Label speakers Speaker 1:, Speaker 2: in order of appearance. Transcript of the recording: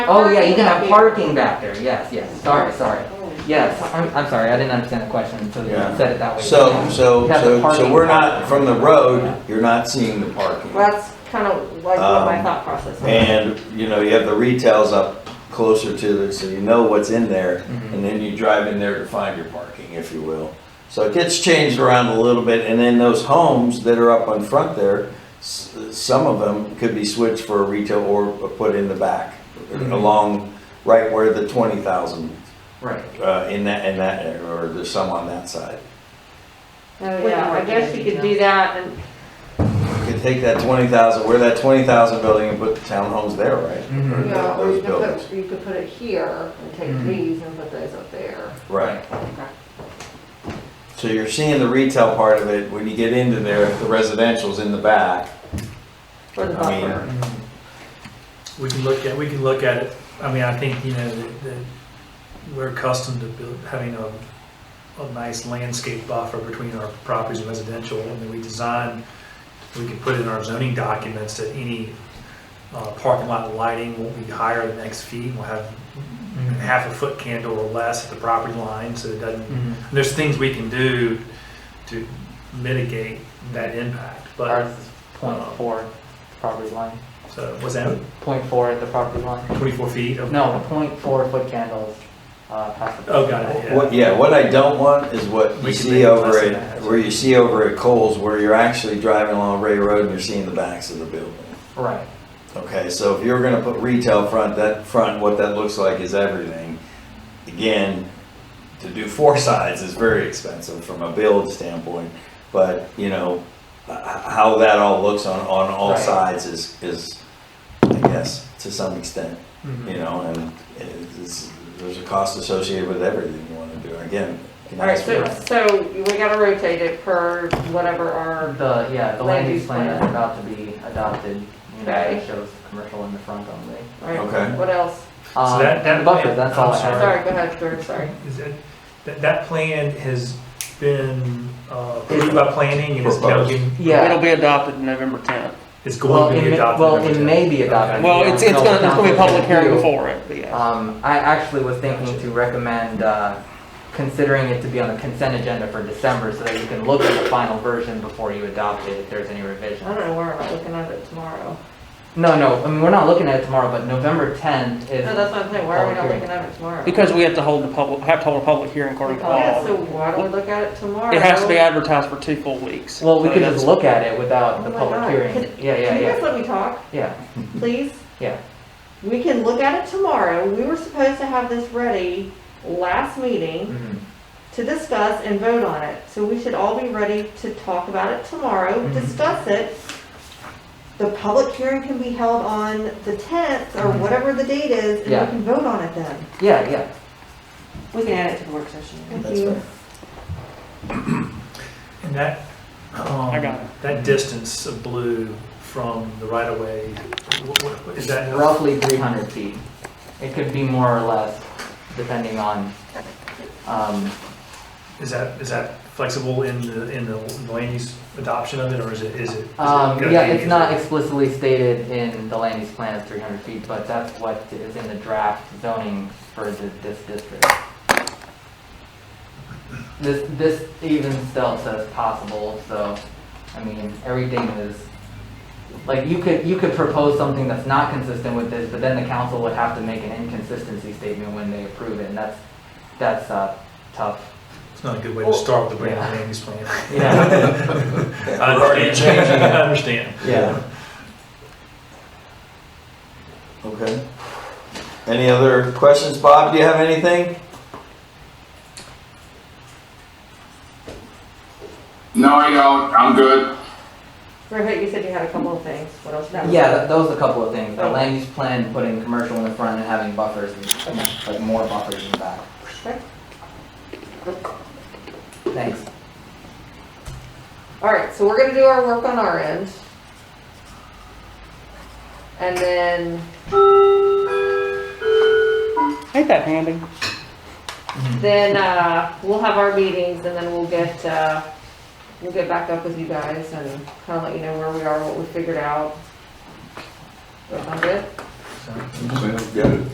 Speaker 1: Oh, yeah, you can have parking back there, yes, yes, sorry, sorry. Yes, I'm, I'm sorry, I didn't understand the question until you
Speaker 2: Yeah.
Speaker 1: said it that way.
Speaker 2: So, so,
Speaker 1: Have the
Speaker 2: so, so
Speaker 1: parking.
Speaker 2: we're not, from the road, you're not seeing the parking.
Speaker 3: Well, that's kind of like what my
Speaker 2: Um,
Speaker 3: thought process was.
Speaker 2: And, you know, you have the retails up closer to it, so you know what's in there,
Speaker 1: Mhm.
Speaker 2: and then you drive in there to find your parking, if you will. So it gets changed around a little bit, and then those homes that are up on front there, s- some of them could be switched for retail or put in the back,
Speaker 1: Mhm.
Speaker 2: along, right where the twenty thousand,
Speaker 1: Right.
Speaker 2: uh, in that, in that, area, or there's some on that side.
Speaker 3: So, Oh, yeah, I guess you could do that and,
Speaker 2: You could take that twenty thousand, where that twenty thousand building and put townhomes there, right?
Speaker 4: Mm-hmm.
Speaker 1: Mhm.
Speaker 2: Or th-
Speaker 3: yeah, or you
Speaker 2: Those
Speaker 3: could
Speaker 2: buildings,
Speaker 3: put, you could put it here and take
Speaker 1: Mhm.
Speaker 3: these and put those up there.
Speaker 2: right. So you're seeing the retail part of it, when you get into there, the residential's in the back.
Speaker 3: For the
Speaker 2: I mean-
Speaker 3: buffer.
Speaker 1: Mhm.
Speaker 4: We can look at, we can look at it, I mean, I think, you know, that, that we're accustomed to build, having a, a nice landscape buffer between our properties and residential, and then we design, we can put in our zoning documents that any, uh, parking lot lighting won't be higher than X feet, we'll have
Speaker 1: Mhm.
Speaker 4: half a foot candle or less at the property line, so it doesn't,
Speaker 1: Mhm.
Speaker 4: there's things we can do to mitigate that impact,
Speaker 1: Ours
Speaker 4: but,
Speaker 1: is point four property line,
Speaker 4: so, what's that,
Speaker 1: point four at the property line.
Speaker 4: twenty-four feet of?
Speaker 1: No, point four foot candles, uh, past the.
Speaker 4: Oh, got it, yeah.
Speaker 2: What, yeah, what I don't want is what you
Speaker 4: We can
Speaker 2: see
Speaker 4: make it
Speaker 2: over
Speaker 4: less than
Speaker 2: at,
Speaker 4: that.
Speaker 2: where you see over at Coles, where you're actually driving along Ray Road and you're seeing the backs of the building.
Speaker 1: Right,
Speaker 2: Okay, so if you're gonna put retail front, that front, what that looks like is everything. Again, to do four sides is very expensive from a build standpoint, but, you know, h- how that all looks on, on all
Speaker 1: Right.
Speaker 2: sides is, is, I guess, to some extent,
Speaker 4: Mhm.
Speaker 2: you know, and it's, there's a cost associated with everything you wanna do, again. can
Speaker 3: All right,
Speaker 2: ask
Speaker 3: so,
Speaker 2: for-
Speaker 3: so we gotta rotate it per whatever our,
Speaker 1: the, yeah, the
Speaker 3: Land
Speaker 1: land use
Speaker 3: use
Speaker 1: plan is
Speaker 3: plan.
Speaker 1: about to be adopted, you know, it
Speaker 3: Okay.
Speaker 1: shows commercial in the front only.
Speaker 3: all right,
Speaker 2: Okay.
Speaker 3: what else?
Speaker 1: Um,
Speaker 4: that- that-
Speaker 1: Buffer, that's all I
Speaker 4: I'm
Speaker 1: have.
Speaker 3: Sorry, go ahead, George, sorry.
Speaker 4: Is that, that, that plan has been uh, approved by planning and is now
Speaker 2: Proposed.
Speaker 4: getting,
Speaker 1: Yeah.
Speaker 5: It'll be adopted November 10th.
Speaker 4: is
Speaker 1: Well,
Speaker 4: going
Speaker 1: it
Speaker 4: to be
Speaker 1: may-
Speaker 4: adopted.
Speaker 1: well,
Speaker 4: over
Speaker 1: it
Speaker 4: time.
Speaker 1: may be adopted.
Speaker 4: Okay.
Speaker 5: Well, it's, it's gonna, there's gonna be a public hearing
Speaker 1: Yeah.
Speaker 5: before it, but yeah.
Speaker 1: Um, I actually was thinking to recommend, uh, considering it to be on the consent agenda for December so that you can look at the final version before you adopt it if there's any
Speaker 3: I
Speaker 1: revisions.
Speaker 3: don't know where I'm looking at it tomorrow.
Speaker 1: No, no, I mean, we're not looking at it tomorrow, but November tenth is.
Speaker 3: No, that's what I'm saying, why are we not
Speaker 1: Public
Speaker 3: looking at it tomorrow? Oh,
Speaker 5: Because we have to hold the public, have to hold a public hearing according to
Speaker 3: Yeah, so
Speaker 5: law.
Speaker 3: why don't we look at it tomorrow?
Speaker 5: It has to be advertised for two full weeks.
Speaker 1: Well, we
Speaker 5: So
Speaker 1: could
Speaker 5: that's-
Speaker 1: just look at it without the
Speaker 3: Oh my
Speaker 1: public
Speaker 3: God.
Speaker 1: hearing.
Speaker 3: Could-
Speaker 1: Yeah, yeah,
Speaker 3: Can you guys
Speaker 1: yeah,
Speaker 3: let me talk?
Speaker 1: yeah,
Speaker 3: please?
Speaker 1: Yeah.
Speaker 3: We can look at it tomorrow. We were supposed to have this ready last meeting
Speaker 1: mhm,
Speaker 3: to discuss and vote on it. So we should all be ready to talk about it tomorrow,
Speaker 1: Mhm.
Speaker 3: discuss it. The public hearing can be held on the tenth or
Speaker 1: Mhm.
Speaker 3: whatever the date is, and we
Speaker 1: Yeah.
Speaker 3: can vote on it then.
Speaker 1: yeah, yeah.
Speaker 3: We can add it to the work session. Thank
Speaker 2: That's
Speaker 3: you.
Speaker 2: fair.
Speaker 4: And that,
Speaker 5: I got it.
Speaker 4: um, that distance of blue from the right of way, wh- wh- wh- is that?
Speaker 1: Roughly three hundred feet. It could be more or less, depending on, um,
Speaker 4: Is that, is that flexible in the, in the land use adoption of it, or is it, is it? is it
Speaker 1: Um,
Speaker 4: gonna
Speaker 1: yeah,
Speaker 4: be-
Speaker 1: it's not explicitly stated in the land use plan as three hundred feet, but that's what is in the draft zoning for the, this district. This, this even still says possible, so, I mean, everything is, like, you could, you could propose something that's not consistent with this, but then the council would have to make an inconsistency statement when they approve it, and that's, that's, uh, tough.
Speaker 4: It's not a good way to start with a brand new
Speaker 1: Yeah.
Speaker 4: land use plan.
Speaker 1: Yeah,
Speaker 4: I
Speaker 2: We're already
Speaker 4: understand.
Speaker 2: changing
Speaker 4: I
Speaker 2: it.
Speaker 4: understand.
Speaker 2: Yeah. Okay. Any other questions? Bob, do you have anything?
Speaker 6: No, I don't. I'm good.
Speaker 3: Rohit, you said you had a couple of things. What else? That was-
Speaker 1: yeah, that, that was a couple of things, the land use plan, putting commercial in the front and having buffers, and like more buffers in the back.
Speaker 3: Okay.
Speaker 1: Thanks.
Speaker 3: All right, so we're gonna do our work on our end. And then
Speaker 5: Ain't that handy?
Speaker 3: Then, uh, we'll have our meetings and then we'll get, uh, we'll get back up with you guys and kind of let you know where we are, what we figured out. Sound good?
Speaker 2: Yeah.